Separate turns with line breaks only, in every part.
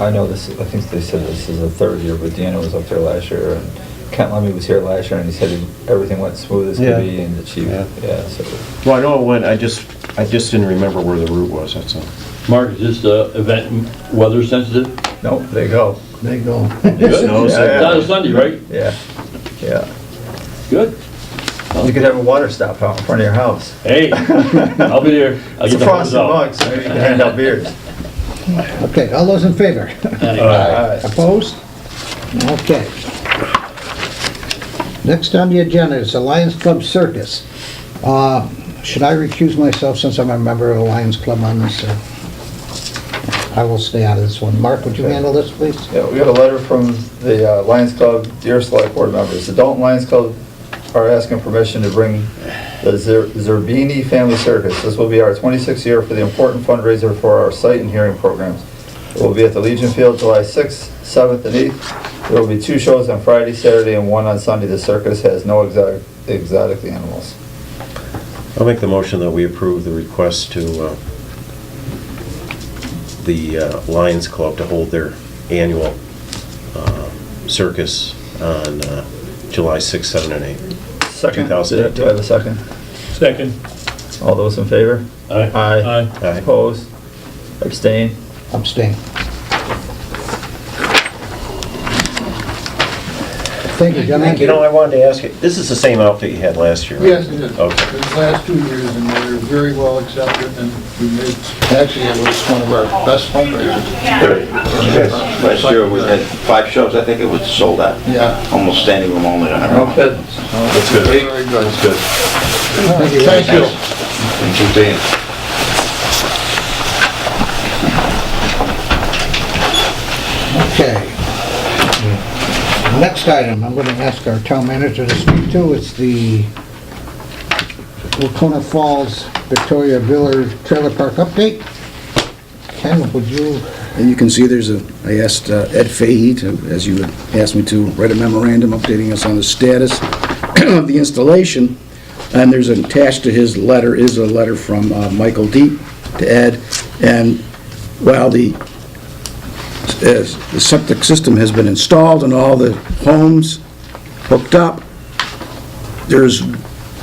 I know this, I think they said this is the third year, but Deanna was up there last year, and Kent Lemmy was here last year, and he said everything went smooth as
Yeah.
could be, and the chief,
Yeah.
yeah, so.
Well, I know it went, I just, I just didn't remember where the route was, that's all.
Mark, is this uh, event weather sensitive?
Nope, they go.
They go.
Good.
No,
It's
it's-
not a Sunday, right?
Yeah, yeah.
Good.
You could have a water stop out in front of your house.
Hey, I'll be there. I'll
It's
get
a
the horns
frosty
out.
mug, so maybe you can hand out beers.
Okay, all those in favor?
Aye.
All right.
Opposed? Okay. Next on the agenda is the Lions Club Circus. Uh, Should I recuse myself since I'm a member of the Lions Club on this? uh, I will stay out of this one. Mark, would you handle this, please?
Yeah, we got a letter from the uh, Lions Club, dear select board members, the Dalton Lions Club are asking permission to bring the Zer- Zerbini Family Circus. This will be our 26th year for the important fundraiser for our sight and hearing programs. It will be at the Legion Field July 6th, 7th, and 8th. There will be two shows on Friday, Saturday, and one on Sunday. The circus has no exotic exotic animals.
I'll make the motion that we approve the request to uh, the uh, Lions Club to hold their annual uh, circus on uh, July 6, 7, and 8.
Second.
2018.
Do I have a second?
Second.
All those in favor?
Aye.
Aye.
Aye.
Opposed? Abstain?
Abstain. Thank you, gentlemen.
You know, I wanted to ask you, this is the same outfit you had last year, right?
Yes, it is.
Okay.
The last two years, and they were very well accepted, and we made, actually, it was one of our best fundraisers.
Last year, we had five shows, I think it was sold out.
Yeah.
Almost standing room only on our own.
Okay.
That's good.
Very good.
That's good.
Thank you.
Thank you, Dan.
Okay. Mm. Next item, I'm going to ask our town manager to speak to, it's the Wacona Falls Victoria Villar Trailer Park update. Ken, would you,
And you can see there's a, I asked uh, Ed Fahey to, as you had asked me to, write a memorandum updating us on the status of the installation. And there's attached to his letter is a letter from uh, Michael Deep to Ed. And while the, as the septic system has been installed and all the homes hooked up, there's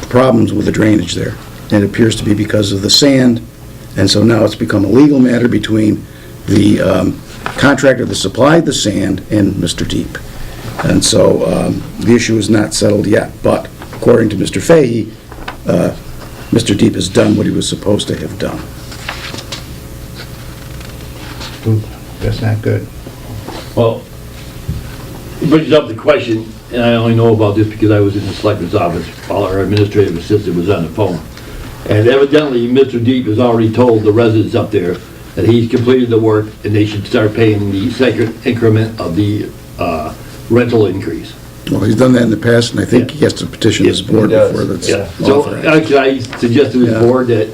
problems with the drainage there. And it appears to be because of the sand. And so now it's become a legal matter between the um, contractor that supplied the sand and Mr. Deep. And so um, the issue is not settled yet, but according to Mr. Fahey, uh, Mr. Deep has done what he was supposed to have done.
Ooh, that's not good.
Well, it brings up the question, and I only know about this because I was in the selectman's office while our administrative assistant was on the phone. And evidently, Mr. Deep has already told the residents up there that he's completed the work and they should start paying the second increment of the uh, rental increase.
Well, he's done that in the past, and I think he has to petition this board
Yeah.
before that's
Yeah, so
uh,
authorized.
actually, I suggest to the
Yeah.
board that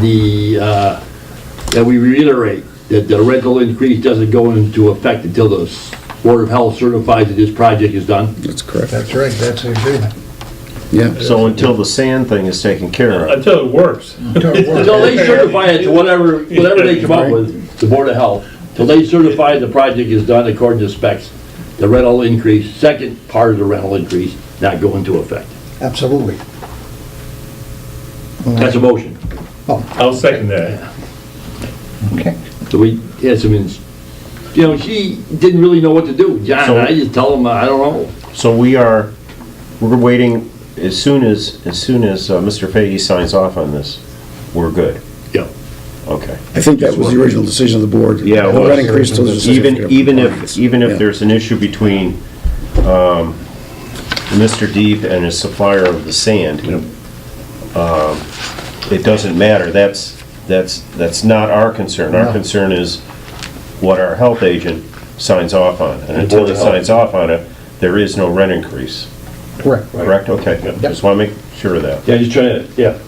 the, uh, that we reiterate that the rental increase doesn't go into effect until the Board of Health certifies that this project is done.
That's correct,
That's right, that's the agreement.
yeah.
So until the sand thing is taken care of,
Until it works.
Until they certify it to whatever, whatever they come up with, the Board of Health, till they certify the project is done according to specs, the rental increase, second part of the rental increase, not go into effect.
Absolutely.
That's a motion.
I'll second that.
Okay.
So we had some, ins- you know, she didn't really know what to do. John,
So-
I just tell him, I don't know.
so we are, we're waiting, as soon as, as soon as uh, Mr. Fahey signs off on this, we're good.
Yeah.
Okay.
I think that was the original decision of the board.
Yeah, it
The
was.
rent increase till the decision of
Even, even
the compliance.
if, even
Yeah.
if there's an issue between um, Mr. Deep and his supplier of the sand, um, it doesn't matter, that's, that's, that's not our concern. Our
No.
concern is what our health agent signs off on. And until
Board
he
of Health.
signs off on it, there is no rent increase,
Correct.
correct? Okay, just want to make sure of that.
Yeah, just trying to, yeah,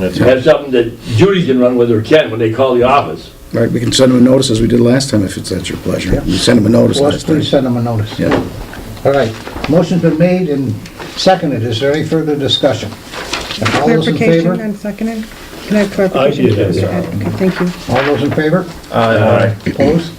That's-
have something that Judy can run with or Ken when they call the office.
Right, we can send them a notice as we did last time, if it's at your pleasure. We sent them a notice
Well,
last time.
please send them a notice.
Yeah.
All right, motion's been made and seconded, is there any further discussion? All those in favor?
Clarification on
Uh,
seconding? Can I have clarification?
I did,
Okay, Thank you.
All those in favor?
Aye.
Opposed?